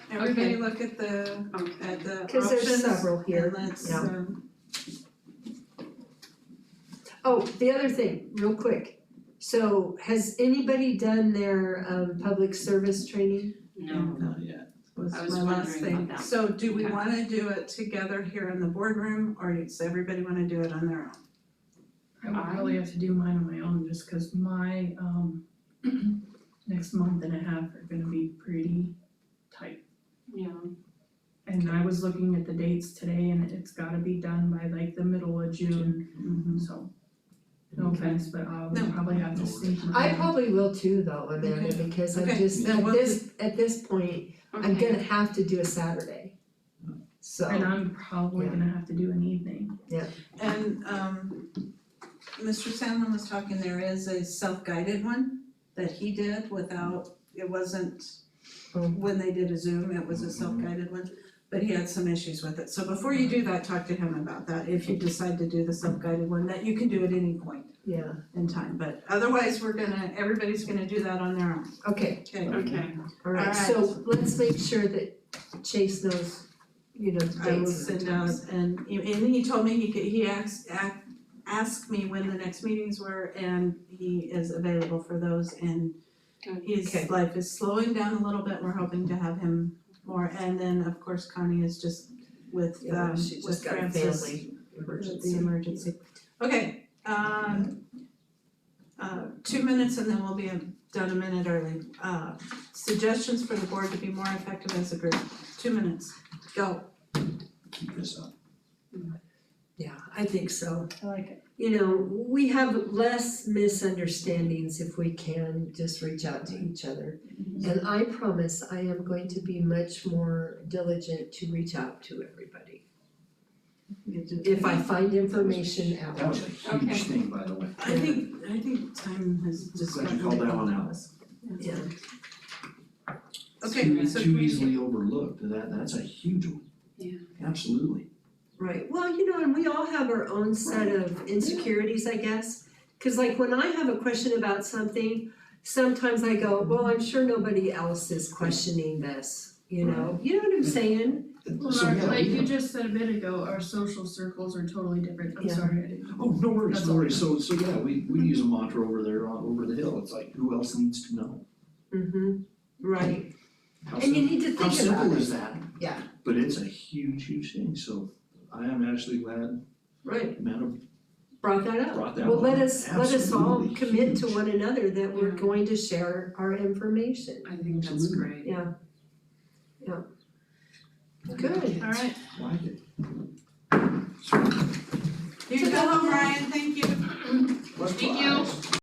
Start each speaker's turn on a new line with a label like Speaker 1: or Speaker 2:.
Speaker 1: Everybody
Speaker 2: Okay.
Speaker 1: look at the,
Speaker 2: Okay.
Speaker 1: at the options.
Speaker 3: Cause there's several here,
Speaker 1: And let's,
Speaker 3: yeah.
Speaker 1: um,
Speaker 3: Oh, the other thing, real quick. So has anybody done their um public service training?
Speaker 2: No.
Speaker 1: not yet, was
Speaker 2: I was
Speaker 1: my last
Speaker 2: wondering
Speaker 1: thing.
Speaker 2: about that.
Speaker 1: So do we
Speaker 2: Okay.
Speaker 1: wanna do it together here in the boardroom, or does everybody wanna do it on their own?
Speaker 4: I would probably have to do mine on my own just cause my um next month and a half are gonna be pretty tight.
Speaker 2: Yeah,
Speaker 4: And I was looking at the dates today and it's gotta be done by like the middle of June,
Speaker 2: Mm-hmm.
Speaker 4: so no
Speaker 3: Okay.
Speaker 4: offense, but I'll
Speaker 1: No.
Speaker 4: probably have to
Speaker 5: No
Speaker 4: sneak
Speaker 5: worries.
Speaker 3: I
Speaker 4: mine.
Speaker 3: probably will too though, Amanda,
Speaker 1: Okay.
Speaker 3: because I'm
Speaker 1: Okay,
Speaker 3: just,
Speaker 1: then
Speaker 3: at
Speaker 1: we'll
Speaker 3: this, at this point, I'm
Speaker 2: okay.
Speaker 3: gonna have to do a Saturday.
Speaker 4: And
Speaker 3: So,
Speaker 4: I'm probably
Speaker 3: Yeah.
Speaker 4: gonna have to do an evening.
Speaker 1: And um Mr. Sandlin was talking, there is a self-guided one that he did without, it wasn't
Speaker 3: Oh.
Speaker 1: when they did a Zoom, it was a self-guided one, but he had some issues with it. So before you do that, talk to him about that, if you decide to do the self-guided one, that you can do at any point
Speaker 3: yeah,
Speaker 1: in time, but otherwise, we're gonna, everybody's gonna do that on their own,
Speaker 3: okay,
Speaker 1: okay?
Speaker 2: Okay,
Speaker 3: alright,
Speaker 1: All
Speaker 3: so let's make sure that Chase knows, you know, the dates
Speaker 1: I will
Speaker 3: and the
Speaker 1: send out
Speaker 3: times.
Speaker 1: and and he told me he could, he asked ac- asked me when the next meetings were and he is available for those and
Speaker 2: Good.
Speaker 3: Okay.
Speaker 1: his life is slowing down a little bit, we're hoping to have him more and then of course Connie is just with
Speaker 3: Yeah,
Speaker 1: um
Speaker 3: she
Speaker 1: with
Speaker 3: just got a
Speaker 1: Francis,
Speaker 3: family
Speaker 1: with
Speaker 3: emergency.
Speaker 1: the emergency. Okay, um uh two minutes and then we'll be done a minute early. Uh suggestions for the board to be more effective as a group, two minutes, go.
Speaker 5: keep this up.
Speaker 3: Yeah, I think so.
Speaker 4: I like it.
Speaker 3: You know, we have less misunderstandings if we can just reach out to each other. And I promise I am going to be much more diligent to reach out to everybody. If I find information
Speaker 5: That
Speaker 3: out.
Speaker 5: was a huge
Speaker 2: Okay.
Speaker 5: thing, by the way.
Speaker 1: I think, I think time has just
Speaker 5: Glad
Speaker 1: gotten.
Speaker 5: you called that one out.
Speaker 3: Yeah.
Speaker 1: Okay,
Speaker 5: Too-
Speaker 1: so
Speaker 5: Too
Speaker 1: we-
Speaker 5: easily overlooked, that, that's a huge one.
Speaker 2: Yeah.
Speaker 5: Absolutely.
Speaker 3: Right, well, you know, and we all have our own set of insecurities, I guess. Cause like when I have a question about something, sometimes I go, well, I'm sure nobody else is questioning this, you know? You know what I'm saying?
Speaker 4: Well,
Speaker 5: So,
Speaker 4: our-
Speaker 5: yeah,
Speaker 4: like
Speaker 5: we
Speaker 4: you
Speaker 5: have-
Speaker 4: just said a bit ago, our social circles are totally different. I'm
Speaker 3: Yeah.
Speaker 4: sorry, I didn't.
Speaker 5: Oh, no worries,
Speaker 4: That's
Speaker 5: no
Speaker 4: all.
Speaker 5: worries. So, so yeah, we, we use a mantra over there, on over the hill. It's like, who else needs to know?
Speaker 3: Mm-hmm, right.
Speaker 5: How
Speaker 3: And you
Speaker 5: simple,
Speaker 3: need to
Speaker 5: how
Speaker 3: think about
Speaker 5: simple
Speaker 3: it,
Speaker 5: is that?
Speaker 3: Yeah.
Speaker 5: But it's a huge, huge thing, so I am actually glad
Speaker 3: right,
Speaker 5: Amanda
Speaker 3: brought that up.
Speaker 5: brought that
Speaker 3: Well,
Speaker 5: one
Speaker 3: let
Speaker 5: up.
Speaker 3: us, let us all
Speaker 5: Absolutely
Speaker 3: commit to
Speaker 5: huge.
Speaker 3: one another that we're
Speaker 2: Yeah.
Speaker 3: going to share our information.
Speaker 2: I think that's
Speaker 5: Absolutely.
Speaker 2: great.
Speaker 3: Yeah. Good.
Speaker 1: alright,
Speaker 5: Like it.
Speaker 1: here you go, Brian, thank you.
Speaker 5: Likewise.
Speaker 2: you.